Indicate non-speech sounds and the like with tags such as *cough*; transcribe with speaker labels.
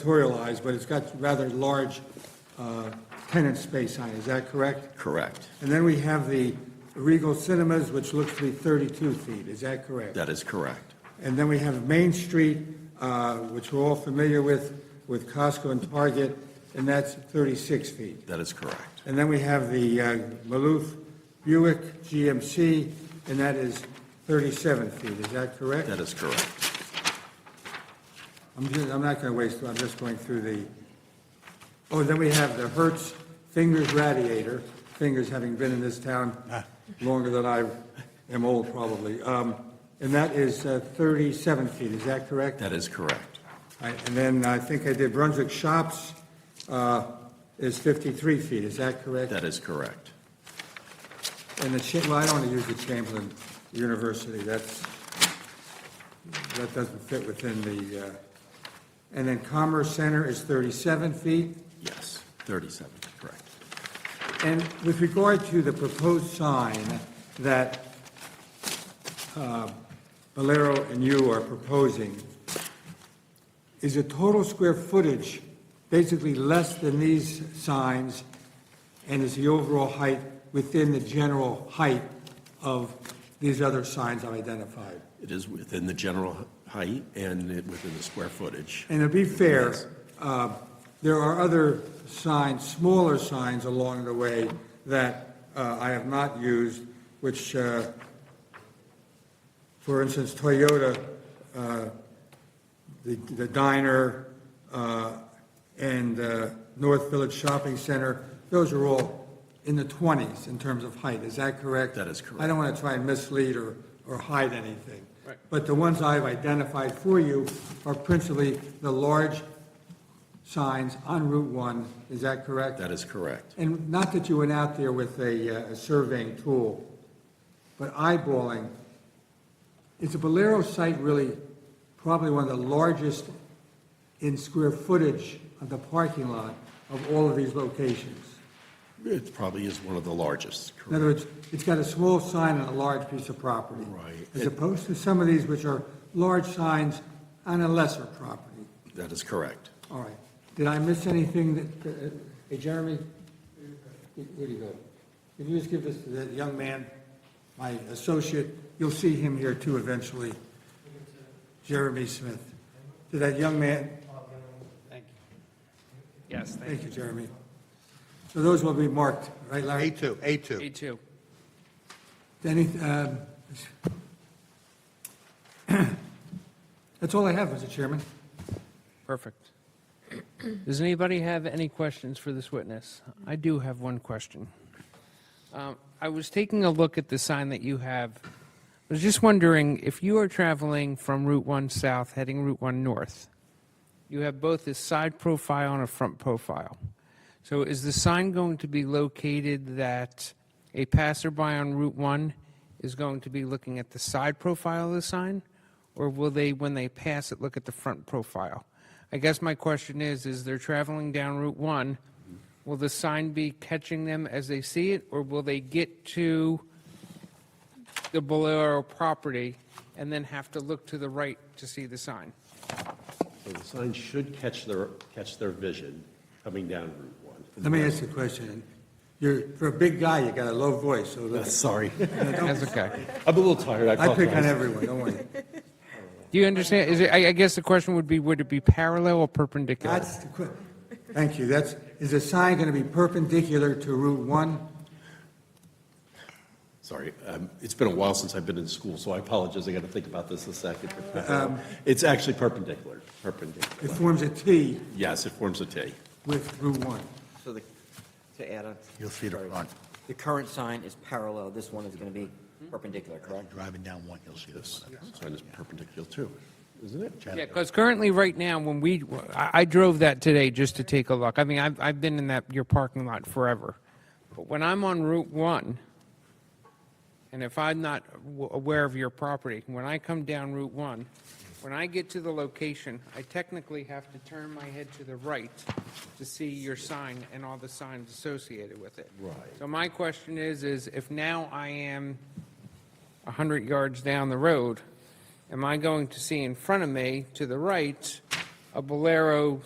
Speaker 1: editorialize, but it's got rather large uh, tenant space on it, is that correct?
Speaker 2: Correct.
Speaker 1: And then we have the Regal Cinemas, which looks to be 32 feet, is that correct?
Speaker 2: That is correct.
Speaker 1: And then we have Main Street, uh, which we're all familiar with, with Costco and Target, and that's 36 feet.
Speaker 2: That is correct.
Speaker 1: And then we have the uh, Maloof Buick GMC, and that is 37 feet, is that correct?
Speaker 2: That is correct.
Speaker 1: I'm just, I'm not going to waste, I'm just going through the, oh, then we have the Hertz Fingers Radiator, Fingers having been in this town longer than I am old probably, Um, and that is uh, 37 feet, is that correct?
Speaker 2: That is correct.
Speaker 1: All right, And then I think I did Brunswick Shops uh, is 53 feet, is that correct?
Speaker 2: That is correct.
Speaker 1: And the, Cha- well, I don't want to use the Chamberlain University, that's, that doesn't fit within the, uh, and then Commerce Center is 37 feet.
Speaker 2: Yes, 37, correct.
Speaker 1: And with regard to the proposed sign that uh, Valero and you are proposing, is the total square footage basically less than these signs? And is the overall height within the general height of these other signs I've identified?
Speaker 2: It is within the general height and it- within the square footage.
Speaker 1: And to be fair, uh, there are other signs, smaller signs along the way that uh, I have not used, which, uh, for instance, Toyota, uh, the the diner, uh, and uh, North Village Shopping Center, those are all in the 20s in terms of height, is that correct?
Speaker 2: That is correct.
Speaker 1: I don't want to try and mislead or, or hide anything. But the ones I've identified for you are principally the large signs on Route 1, is that correct?
Speaker 2: That is correct.
Speaker 1: And not that you went out there with a, uh, a surveying tool, but eyeballing, is the Bolero site really probably one of the largest in square footage of the parking lot of all of these locations?
Speaker 2: It probably is one of the largest,
Speaker 1: In other
Speaker 2: correct?
Speaker 1: words, it's got a small sign on a large piece of property.
Speaker 2: Right.
Speaker 1: As opposed to some of these which are large signs on a lesser property.
Speaker 2: That is correct.
Speaker 1: All right. Did I miss anything that, uh, hey, Jeremy? Where do you go? Can you just give this to that young man, my associate? You'll see him here too eventually. Jeremy Smith. To that young man,
Speaker 3: Yes, thank
Speaker 1: thank you, Jeremy. So those will be marked, right, Larry?
Speaker 4: A2,
Speaker 3: you.
Speaker 4: A2.
Speaker 3: A2.
Speaker 1: Any, um, *clears throat* that's all I have, Mr. Chairman.
Speaker 3: Perfect. *clears throat* Does anybody have any questions for this witness? I do have one question. Um, I was taking a look at the sign that you have. I was just wondering if you are traveling from Route 1 South, heading Route 1 North, you have both a side profile and a front profile. So is the sign going to be located that a passerby on Route 1 is going to be looking at the side profile of the sign? Or will they, when they pass it, look at the front profile? I guess my question is, is they're traveling down Route 1, will the sign be catching them as they see it? Or will they get to the Bolero property and then have to look to the right to see the sign?
Speaker 5: So the sign should catch their, catch their vision coming down Route 1.
Speaker 1: Let me ask you a question. You're, for a big guy, you got a low voice, so let's-
Speaker 5: Uh, Sorry, *laughs*
Speaker 3: That's okay.
Speaker 5: I'm a little tired.
Speaker 1: I pick on
Speaker 5: apologize.
Speaker 1: everyone, don't worry.
Speaker 3: Do you understand? Is it, I, I guess the question would be, would it be parallel or perpendicular?
Speaker 1: That's the que, thank you, that's, is the sign going to be perpendicular to Route 1?
Speaker 5: Sorry, um, it's been a while since I've been in school, so I apologize, I got to think about this a second. It's actually perpendicular,
Speaker 1: It
Speaker 5: perpendicular.
Speaker 1: forms a T
Speaker 5: Yes, it forms a T.
Speaker 1: with Route 1.
Speaker 6: So the, to add on.
Speaker 4: You'll see the
Speaker 6: sorry.
Speaker 4: front.
Speaker 6: The current sign is parallel, this one is going to be perpendicular, correct?
Speaker 4: Driving down one, you'll see this.
Speaker 5: Sign is perpendicular too, isn't it?
Speaker 3: Yeah, because currently, right now, when we, I, I drove that today just to take a look. I mean, I've, I've been in that, your parking lot forever. But when I'm on Route 1, and if I'm not w- aware of your property, when I come down Route 1, when I get to the location, I technically have to turn my head to the right to see your sign and all the signs associated with it. Right. So my question is, is if now I am 100 yards down the road, am I going to see in front of me, to the right, a Bolero